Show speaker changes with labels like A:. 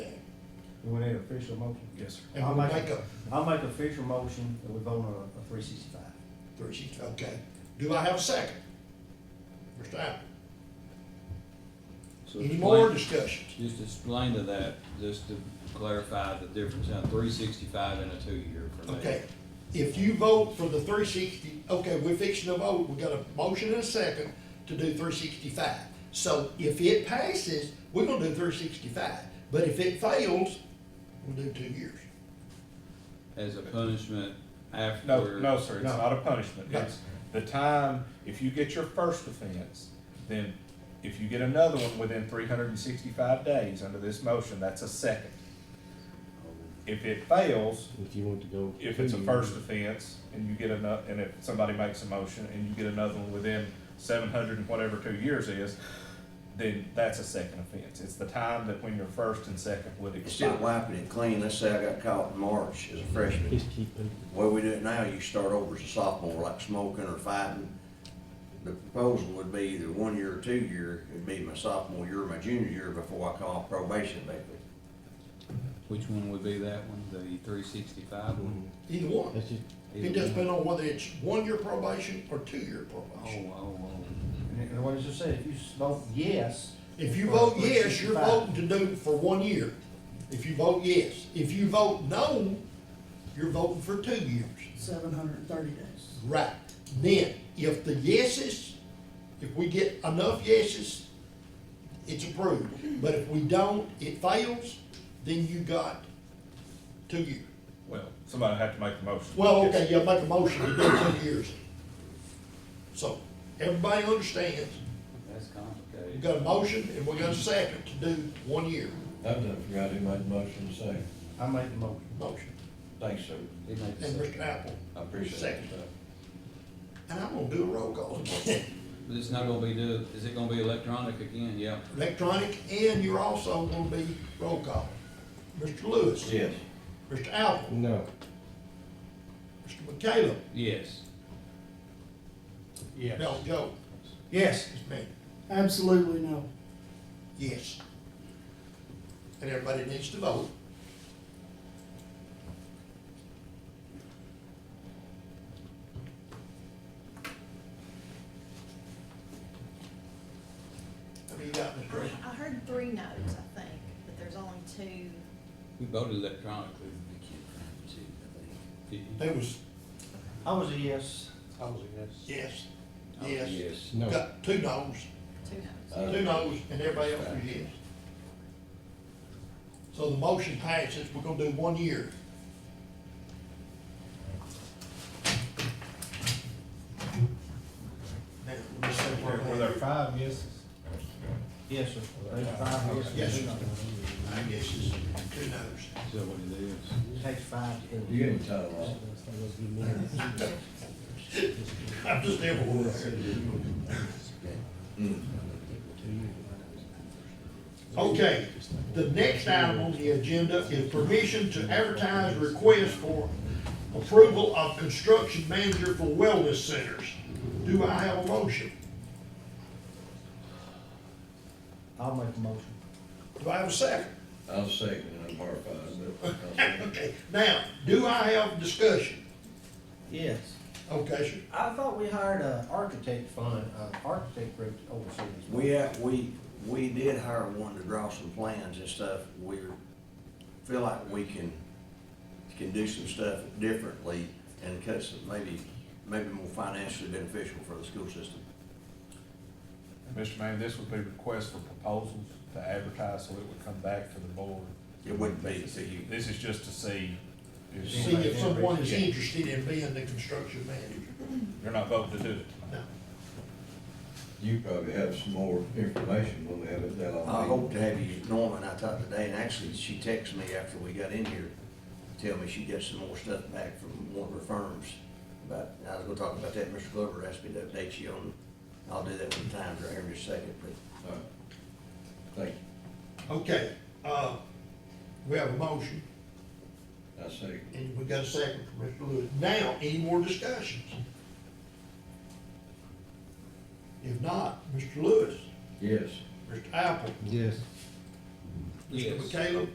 A: With that official motion?
B: Yes, sir.
A: I'll
C: And we
A: make
C: make a
A: I'll make official motion that we vote on a, a three sixty-five.
C: three sheets, okay. Do I have a second? Mr. Allen,
D: So
C: any
D: explain-
C: more discussions?
D: Just explain to that, just to clarify the difference on three sixty-five and a two-year for me.
C: Okay, if you vote for the three sixty, okay, we're fixing to vote, we got a motion and a second to do three sixty-five. So if it passes, we're gonna do three sixty-five, but if it fails, we'll do two years.
D: As a punishment
B: No,
D: after.
B: no, sir, it's
A: No.
B: not a punishment.
C: No.
B: It's the time, if you get your first offense, then if you get another one within three hundred and sixty-five days under this motion, that's a second. If it fails,
E: If you want to go.
B: if it's a
E: two
B: first
E: years,
B: offense and you get another, and if somebody makes a motion and you get another one within seven hundred and whatever two years is, then that's a second offense. It's the time that when your first and second would expire.
F: Instead of wiping it clean, let's say I got caught in March as a freshman.
E: Just keep it.
F: The way we do it now, you start over as a sophomore, like smoking or fighting. The proposal would be either one year or two year, it'd be my sophomore year or my junior year before I come off probation, maybe.
D: Which one would be that one, the three sixty-five one?
C: Either one,
E: That's just,
C: it just depends on whether it's one-year probation or two-year
D: Oh,
C: probation.
D: oh, oh.
A: And it- and what it just said, if you s- vote yes.
C: If you
A: for
C: vote yes, you're
A: 365,
C: voting to do it for one year. If you vote yes. If you vote no, you're voting for two years.
G: seven hundred and thirty days.
C: Right. Then, if the yeses, if we get enough yeses, it's approved. But if we don't, it fails, then you got two years.
B: Well, somebody had to make the motion.
C: Well,
B: Yes.
C: okay, yeah, make a motion to do two years. So, everybody understands,
D: That's
C: we
D: complicated.
C: got a motion and we got a second to do one year
H: I've done forgot who made the motion to say,
A: I make the motion.
C: motion.
H: thanks, sir,
D: It makes
C: And
D: sense.
C: Mr. Apple.
H: I appreciate it.
C: Second. And I'm gonna do a roll call again.
D: But it's not gonna be do, is it gonna be electronic again? Yeah.
C: Electronic, and you're also gonna be roll call. Mr. Lewis.
H: Yes,
C: Mr. Apple.
E: no,
C: Mr. McCallum.
D: Yes.
A: Yes.
C: Mel Joe.
A: Yes.
C: Ms. Manning.
G: Absolutely no.
C: Yes. And everybody needs to vote. How many you got, Mr. Ray?
I: I heard three no's, I think, but there's only two.
D: We voted electronically. We can't find it, I think. Did you?
C: There was,
A: I was a yes. I was a
C: yes,
D: Oh,
C: yes,
D: Yes.
E: no.
C: got two no's.
I: Two no's.
C: Two noes and everybody else is yes. So the motion passes, we're gonna do one year. Now, let me see where
B: Were were there
C: we're at.
B: five yeses?
A: Yes, sir. There's five yeses.
C: Yes, sir. I guess it's two noes.
D: Is that what it is?
A: It takes five to.
H: you getting tired of that?
C: I'm just everywhere. Okay, the next item on the agenda is permission to advertise request for approval of construction manager for wellness centers. Do I have a motion?
A: I'll make the motion.
C: Do I have a second?
H: I'll second it, I'm horrified, but I'll second it.
C: Okay, now, do I have discussion?
A: Yes.
C: Okay, sure.
A: I thought we hired a architect fund, uh, architect group to oversee this.
F: We, uh, we, we did hire one to draw some plans and stuff. We feel like we can, can do some stuff differently and cut some, maybe, maybe more financially beneficial for the school system.
B: Mr. Manning, this would be request for proposals to advertise, so it would come back to the board.
F: It wouldn't be to you.
B: This is just to see. if-
C: See if someone is
B: Yeah.
C: interested in being the construction manager.
B: You're not voting to do it.
C: No.
H: You probably have some more information when we have it down.
F: I hope to have you, Norman, I talked today, and actually, she texted me after we got in here, to tell me she got some more stuff back from one of her firms. But I was gonna talk about that, Mr. Glover asked me to update you on, I'll do that when the time's right here in just a second, but
H: All right. Thank
C: Okay, uh, we have a motion,
H: you, I second.
C: and we got a second from Mr. Lewis. Now, any more discussions? If not, Mr. Lewis,
H: Yes.
C: Mr. Apple,
E: yes.
C: Mr.
D: Yes.
C: McCallum,